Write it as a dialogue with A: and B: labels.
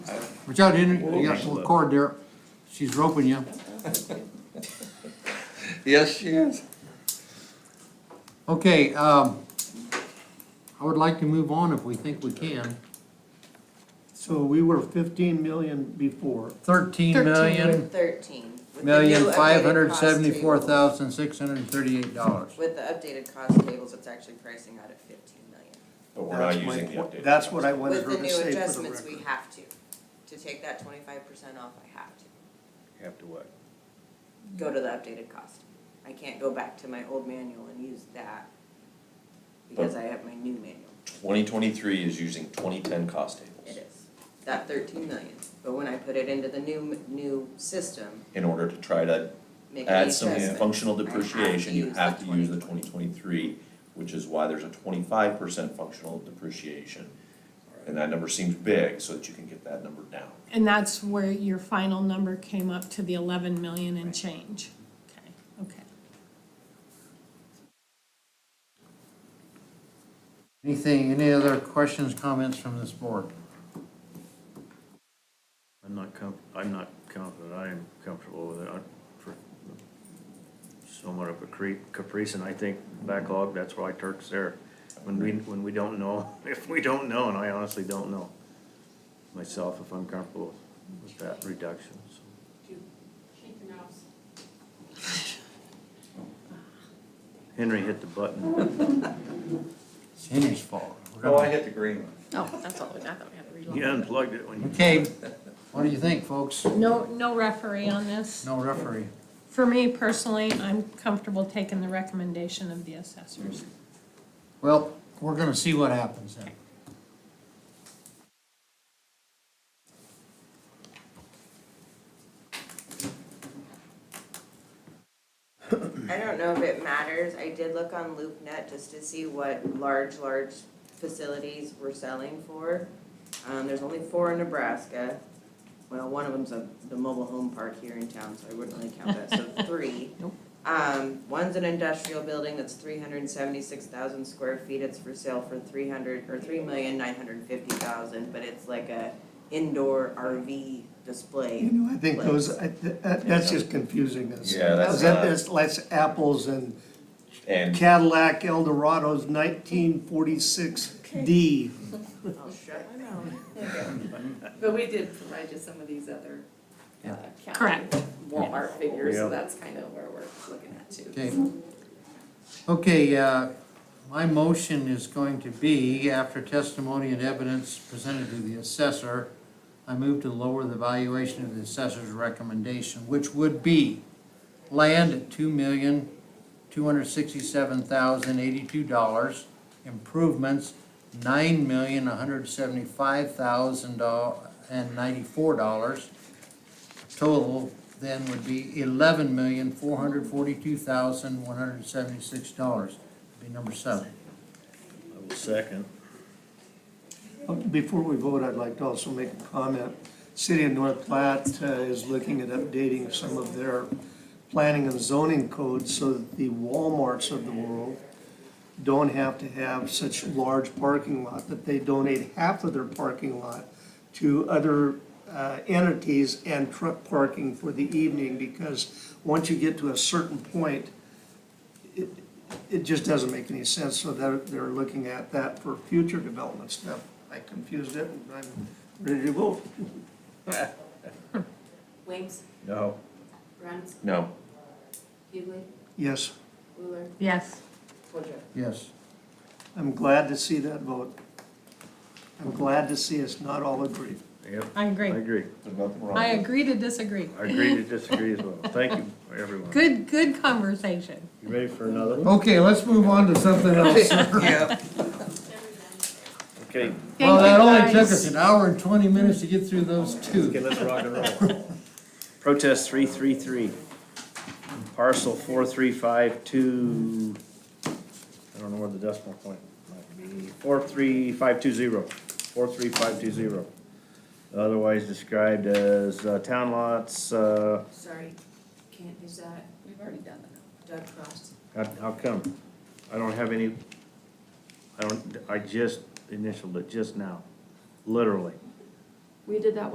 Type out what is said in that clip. A: Watch out, in, you got a little cord there, she's roping you.
B: Yes, she is.
A: Okay, um, I would like to move on if we think we can.
C: So we were fifteen million before.
A: Thirteen million,
D: Thirteen. with the
A: million,
D: new updated
A: five hundred
D: cost
A: seventy-four
D: table.
A: thousand, six hundred and thirty-eight dollars.
D: With the updated cost tables, it's actually pricing out at fifteen million.
E: But we're not
C: That's my-
E: using the updated.
C: That's what I wanted
D: With
C: her
D: the
C: to
D: new
C: say for the
D: adjustments, we
C: record.
D: have to. To take that twenty-five percent off, I have to.
B: Have to what?
D: Go to the updated cost. I can't go back to my old manual and use that because I have my new manual.
E: Twenty twenty-three is using twenty-ten cost
D: It
E: tables
D: is, that thirteen million. But when I put it into the new, new system,
E: in order to try to
D: make an
E: add some
D: adjustment.
E: functional
D: I have to
E: depreciation, you
D: use
E: have
D: the
E: to use the
D: 2020.
E: twenty twenty-three, which is why there's a twenty-five percent functional depreciation. And that number seems big, so that you can get that number down.
F: And that's where your final number came up to the eleven million and change? Okay, okay.
A: Anything, any other questions, comments from this board?
G: I'm not com, I'm not confident, I am comfortable with it, I'm for, somewhat of a creep, caprice, and I think backlog, that's why Turk's there. When we, when we don't know, if we don't know, and I honestly don't know myself if I'm comfortable with that reduction, so. Henry hit the button,
A: It's Henry's fault. We're
B: Oh, I
A: gonna-
B: hit the green one.
F: Oh, that's all, I thought we had to reload.
G: he unplugged it when you.
A: Okay, what do you think, folks?
F: No, no referee on this.
A: No referee.
F: For me personally, I'm comfortable taking the recommendation of the assessors.
A: Well, we're gonna see what happens then.
D: I don't know if it matters, I did look on LoopNet just to see what large, large facilities were selling for. Um, there's only four in Nebraska, well, one of them's a, the mobile home park here in town, so I wouldn't really count that, so three.
F: Nope.
D: Um, one's an industrial building that's three hundred and seventy-six thousand square feet, it's for sale for three hundred, or three million nine hundred and fifty thousand, but it's like a indoor RV display.
C: You know, I think those, I- that- that's just confusing us.
E: Yeah, that's
C: That
E: not-
C: is, that's apples and
E: And
C: Cadillac Eldorado's nineteen forty-six D.
D: Oh, shut my mouth.
H: But we did provide you some of these other uh, county
F: Correct.
H: Walmart figures,
G: Yeah.
H: so that's kind of where we're looking at too.
A: Okay. Okay, uh, my motion is going to be, after testimony and evidence presented to the assessor, I move to lower the valuation of the assessor's recommendation, which would be land at two million, two hundred sixty-seven thousand, eighty-two dollars, improvements, nine million, one hundred seventy-five thousand uh, and ninety-four dollars, total then would be eleven million, four hundred forty-two thousand, one hundred seventy-six dollars. Be number seven.
G: I will second.
C: Before we vote, I'd like to also make a comment. City of North Platte uh, is looking at updating some of their planning and zoning codes so that the Walmarts of the world don't have to have such large parking lot, that they donate half of their parking lot to other uh, entities and truck parking for the evening, because once you get to a certain point, it, it just doesn't make any sense, so they're, they're looking at that for future development stuff. I confused it, and I'm ready to vote.
H: Wames,
B: No.
H: Runs,
E: No,
H: Hughley,
C: Yes,
H: Wheeler,
F: Yes.
H: Woodruff.
A: Yes.
C: I'm glad to see that vote. I'm glad to see us not all agree.
G: Yep,
F: I
G: I
F: agree.
G: agree,
E: there's nothing wrong.
F: I
E: with it.
F: agree to disagree.
G: I agree to disagree as well, thank you, everyone.
F: Good, good conversation.
G: You ready for another one?
A: Okay, let's move on to something else.
G: Okay,
A: Well,
F: Thank
A: that
F: you,
A: only took
F: guys.
A: us an hour and twenty minutes to get through those
G: Okay,
A: two.
G: let's rock and roll. Protest three three three. Parcel four three five two, I don't know where the decimal point might be, four three five two zero, four three five two zero. Otherwise described as uh, town lots, uh,
H: Sorry, can't use that. We've already done that. Doug Frost.
G: how, how come? I don't have any, I don't, I just initialed it just now, literally.
H: We did that